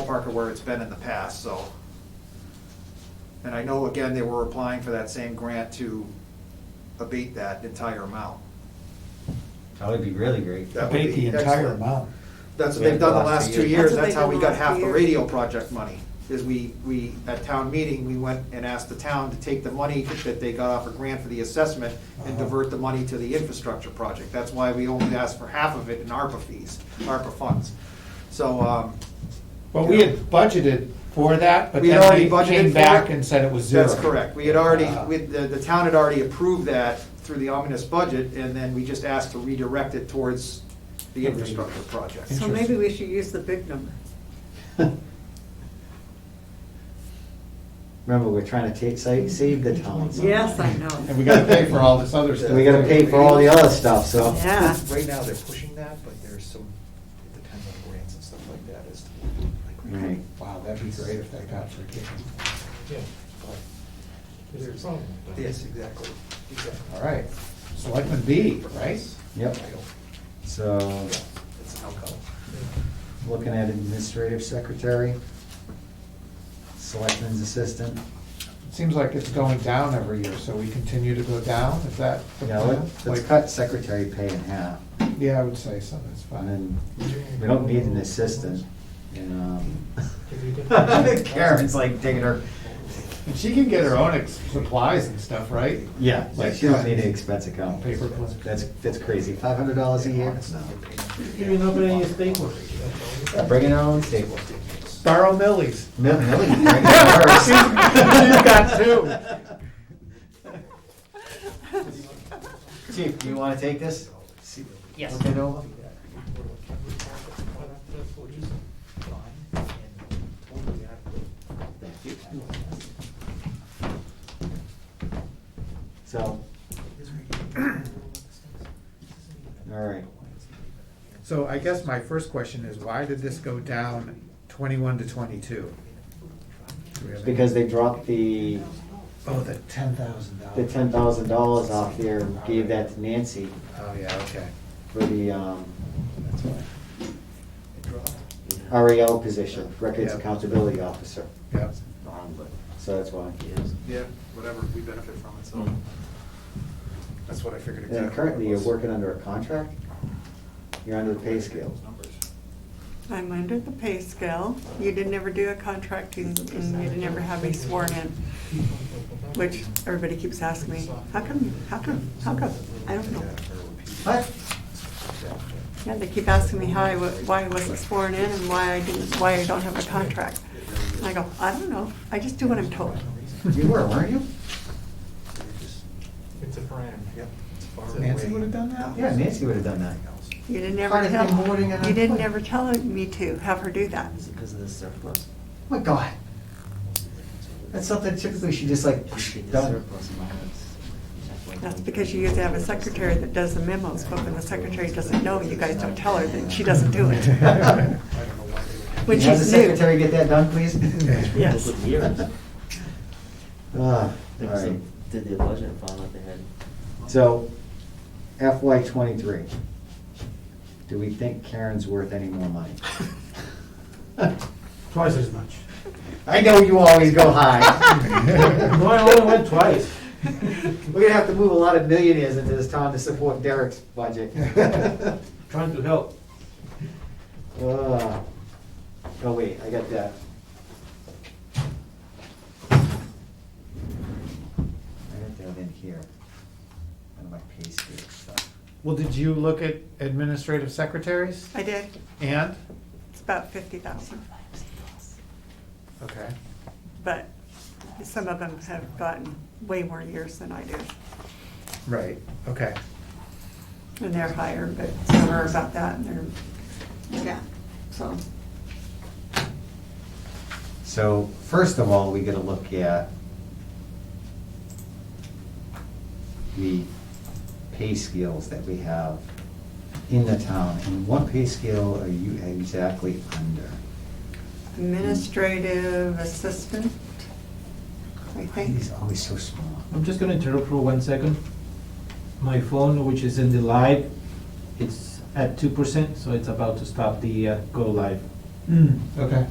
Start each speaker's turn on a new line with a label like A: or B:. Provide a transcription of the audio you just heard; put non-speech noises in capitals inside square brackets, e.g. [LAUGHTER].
A: ballpark of where it's been in the past, so. And I know, again, they were applying for that same grant to abate that entire amount.
B: That would be really great. [LAUGHS]
A: That would
C: Abate the
A: be
C: entire
A: excellent.
C: amount.
A: That's what they've done the last two years,
D: That's what
A: that's how we
D: they've
A: got
D: done
A: half the
D: last year.
A: radio project money, is we, we, at town meeting, we went and asked the town to take the money that they got off a grant for the assessment and
C: Uh-huh.
A: divert the money to the infrastructure project, that's why we only asked for half of it in ARPA fees, ARPA funds. So, um,
C: But we had budgeted for that, but
A: we had
C: then
A: already
C: they
A: budgeted
C: came
A: for
C: back
A: it.
C: and said it was zero.
A: That's correct, we had already,
C: Ah.
A: we, the, the town had already approved that through the ominous budget, and then we just asked to redirect it towards the infrastructure project.
D: So maybe we should use the big number.
B: Remember, we're trying to take, sa- save the town. somehow.
D: Yes, I
C: And
D: know. [LAUGHS]
C: we gotta pay for all this other stuff.
B: And we gotta pay for all the other stuff, so.
D: Yeah.
A: Right now, they're pushing that, but there's some, it depends on grants and stuff like that as to.
B: Right.
C: Wow, that'd be great if that got forgiven.
E: Yeah, there's a problem. with that.
A: Yes, exactly, exactly.
C: All right, selectman B, right?
B: Yep. So,
A: It's an outcome.
B: looking at administrative secretary, selectman's assistant.
C: Seems like it's going down every year, so we continue to go down, is that the
B: Yeah,
C: plan?
B: let- let's
C: Like-
B: cut secretary pay in half.
C: Yeah, I would say so, that's
B: And
C: fine.
B: then, we don't need an assistant. And, um, Karen's like taking her,
C: And she can get her own ex- supplies and stuff, right?
B: yeah, like she don't need an expense account.
C: Paper clips.
B: That's, that's crazy. Five hundred dollars a year?
E: Even opening a staple.
B: No. Bringing her own staples.
C: Borrow [LAUGHS] Millie's.
B: Millie, Millie's bringing [LAUGHS] hers.
C: She's got two.
A: [LAUGHS]
B: Chief, do you wanna take this?
F: Yes.
B: Look it over? So, [CLEARS THROAT] all right.
C: So I guess my first question is, why did this go down twenty-one to twenty-two? Do we have any-
B: Because they dropped the,
C: Oh, the ten thousand dollars.
B: the ten thousand dollars off there, and gave that to Nancy
C: Oh, yeah, okay.
B: for the, um, REL position, Records
C: Yeah.
B: Accountability Officer.
C: Yep.
B: So that's why.
A: Yeah, whatever, we benefit from it, so. That's what I figured exactly.
B: And currently, you're working under a contract? You're under the pay scale.
D: I'm under the pay scale. You didn't ever do a contract and and you didn't ever have me sworn in, which everybody keeps asking me, how come, how come, how come? I don't know.
B: What?
D: Yeah, they keep asking me how I, wa- why I wasn't sworn in and why I didn't, why I don't have a contract. And I go, I don't know. I just do what I'm told.
B: You were, weren't you?
E: It's a pram. Yep.
C: Nancy would have done that?
B: Yeah, Nancy would have done that.
D: You didn't ever
B: Kinda
D: tell,
B: rewarding and
D: you didn't
B: unfair.
D: ever tell me to have her do that.
F: Because of the surplus.
B: My God. That's something typically she just like, done.
D: That's because you usually have a secretary that does the memos, but when the secretary doesn't know, you guys don't tell her, then she doesn't
B: [LAUGHS]
D: do it. When
B: Can you have the
D: she's new.
B: secretary get that done, please?
D: Yes.
F: With years.
B: Ah, all
F: There was a-
B: right.
F: Did the budget and found out they had,
B: So FY twenty-three, do we think Karen's worth any more money?
E: Twice as much. [LAUGHS]
B: I know you always go high.
E: No, I only went twice.
B: We're gonna have to move a lot of millionaires into this town to support Derek's budget.
E: Trying to help.
B: Ah. Oh, wait, I got that. I got that in here, on my pay scale stuff.
C: Well, did you look at administrative secretaries?
D: I did,
C: And?
D: it's about fifty thousand,
C: Okay.
D: but some of them have gotten way more years than I do.
C: Right, okay.
D: And they're higher, but some are about that and they're, yeah, so.
B: So, first of all, we gotta look at the pay scales that we have in the town, and what pay scale are you exactly under?
D: Administrative assistant, I
B: Why
D: think.
B: is it always so small?
E: I'm just gonna interrupt for one second. My phone, which is in the live, it's at two percent, so it's about to stop the uh, go live.
C: Hmm, okay.